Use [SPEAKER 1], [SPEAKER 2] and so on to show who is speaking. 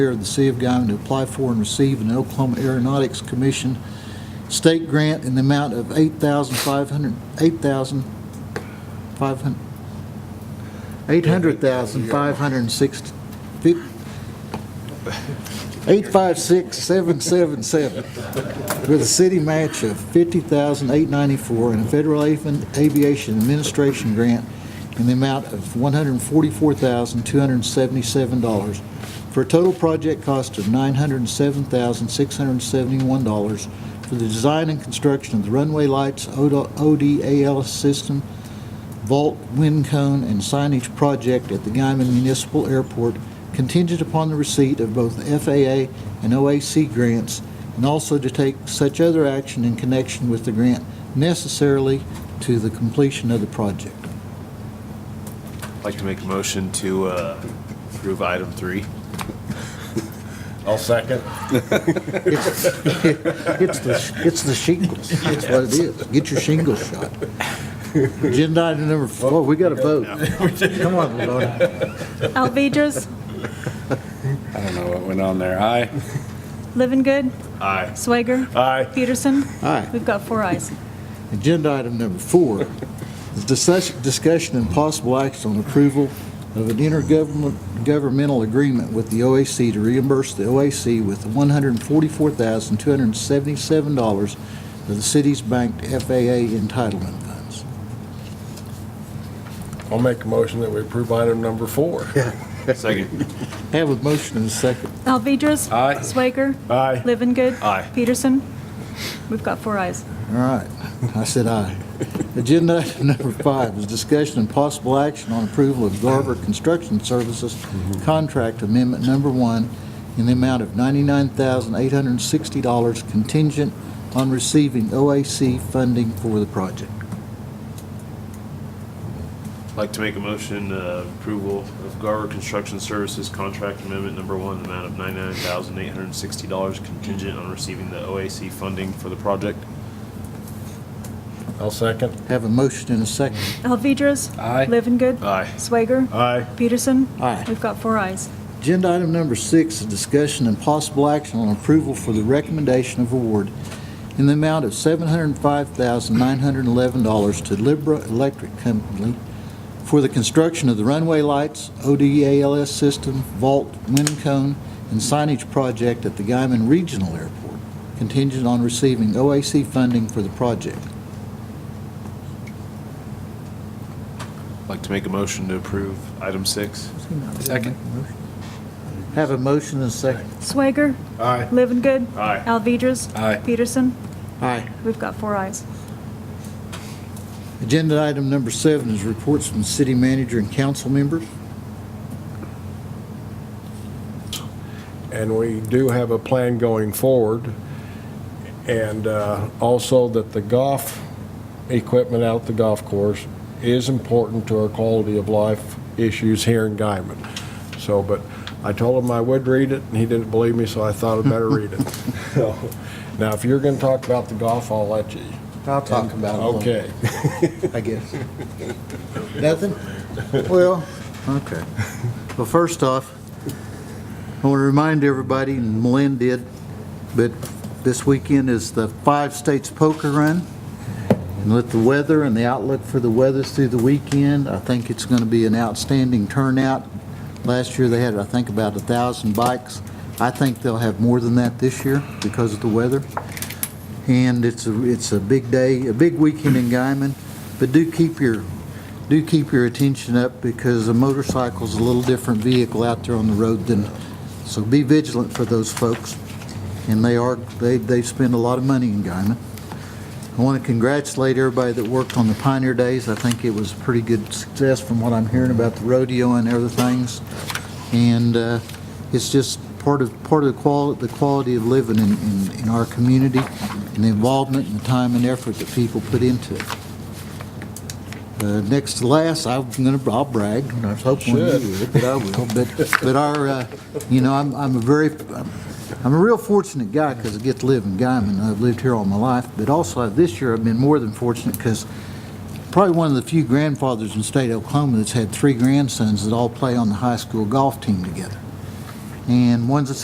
[SPEAKER 1] of the City of Guyman to apply for and receive an Oklahoma Aeronautics Commission state grant in the amount of $8,500, $8,500, $800,560, fif- 856777 with a city match of $50,894 and a Federal Avi- Aviation Administration grant in the amount of $144,277 for a total project cost of $907,671 for the design and construction of the runway lights, ODA ODAL system, vault, wind cone, and signage project at the Guyman Municipal Airport contingent upon the receipt of both FAA and OAC grants, and also to take such other action in connection with the grant necessarily to the completion of the project.
[SPEAKER 2] I'd like to make a motion to uh, approve item three.
[SPEAKER 3] I'll second.
[SPEAKER 1] It's it's the, it's the shingles. That's what it is. Get your shingles shot. Agenda item number four, we got to vote. Come on, Lorna.
[SPEAKER 4] Alvedras,
[SPEAKER 3] I don't know what went on there. Aye.
[SPEAKER 4] Living Good,
[SPEAKER 2] Aye.
[SPEAKER 4] Swager.
[SPEAKER 3] Aye.
[SPEAKER 4] Peterson.
[SPEAKER 1] Aye.
[SPEAKER 4] We've got four eyes.
[SPEAKER 1] Agenda item number four is discuss- discussion and possible action on approval of an intergovernmental agreement with the OAC to reimburse the OAC with $144,277 of the city's banked FAA entitlement funds.
[SPEAKER 3] I'll make a motion that we approve item number four.
[SPEAKER 2] Second.
[SPEAKER 1] Have a motion and a second.
[SPEAKER 4] Alvedras.
[SPEAKER 3] Aye.
[SPEAKER 4] Swager.
[SPEAKER 3] Aye.
[SPEAKER 4] Living Good.
[SPEAKER 2] Aye.
[SPEAKER 4] Peterson. We've got four eyes.
[SPEAKER 1] All right, I said aye. Agenda item number five is discussion and possible action on approval of Garber Construction Services Contract Amendment Number One in the amount of $99,860 contingent on receiving OAC funding for the project.
[SPEAKER 2] I'd like to make a motion, uh, approval of Garber Construction Services Contract Amendment Number One, in the amount of $99,860 contingent on receiving the OAC funding for the project.
[SPEAKER 3] I'll second.
[SPEAKER 1] Have a motion and a second.
[SPEAKER 4] Alvedras.
[SPEAKER 3] Aye.
[SPEAKER 4] Living Good.
[SPEAKER 2] Aye.
[SPEAKER 4] Swager.
[SPEAKER 3] Aye.
[SPEAKER 4] Peterson.
[SPEAKER 1] Aye.
[SPEAKER 4] We've got four eyes.
[SPEAKER 1] Agenda item number six is discussion and possible action on approval for the recommendation of award in the amount of $705,911 to Libra Electric Company for the construction of the runway lights, ODALS system, vault, wind cone, and signage project at the Guyman Regional Airport, contingent on receiving OAC funding for the project.
[SPEAKER 2] I'd like to make a motion to approve item six.
[SPEAKER 3] Second.
[SPEAKER 1] Have a motion and a second.
[SPEAKER 4] Swager.
[SPEAKER 3] Aye.
[SPEAKER 4] Living Good.
[SPEAKER 2] Aye.
[SPEAKER 4] Alvedras.
[SPEAKER 3] Aye.
[SPEAKER 4] Peterson.
[SPEAKER 1] Aye.
[SPEAKER 4] We've got four eyes.
[SPEAKER 1] Agenda item number seven is reports from city manager and council members.
[SPEAKER 3] And we do have a plan going forward. And uh, also that the golf equipment out at the golf course is important to our quality of life issues here in Guyman. So, but I told him I would read it, and he didn't believe me, so I thought I'd better read it. So, Now, if you're going to talk about the golf, I'll let you.
[SPEAKER 1] I'll talk about it.
[SPEAKER 3] Okay.
[SPEAKER 1] I guess. Nothing? Well, okay. Well, first off, I want to remind everybody, and Malin did, but this weekend is the Five States Poker Run. And with the weather and the outlook for the weather through the weekend, I think it's going to be an outstanding turnout. Last year, they had, I think, about 1,000 bikes. I think they'll have more than that this year because of the weather. And it's a, it's a big day, a big weekend in Guyman, but do keep your, do keep your attention up because a motorcycle's a little different vehicle out there on the road than, so be vigilant for those folks. And they are, they, they spend a lot of money in Guyman. I want to congratulate everybody that worked on the Pioneer Days. I think it was a pretty good success from what I'm hearing about the rodeo and other things. And uh, it's just part of, part of the quality, the quality of living in, in, in our community and the involvement and the time and effort that people put into it. Uh, Next to last, I'm gonna, I'll brag, and I was hoping you
[SPEAKER 3] Should.
[SPEAKER 1] would, but I will. But, but our, uh, you know, I'm, I'm a very, I'm a real fortunate guy because I get to live in Guyman. I've lived here all my life, but also this year I've been more than fortunate because probably one of the few grandfathers in the state of Oklahoma that's had three grandsons that all play on the high school golf team together. and one's a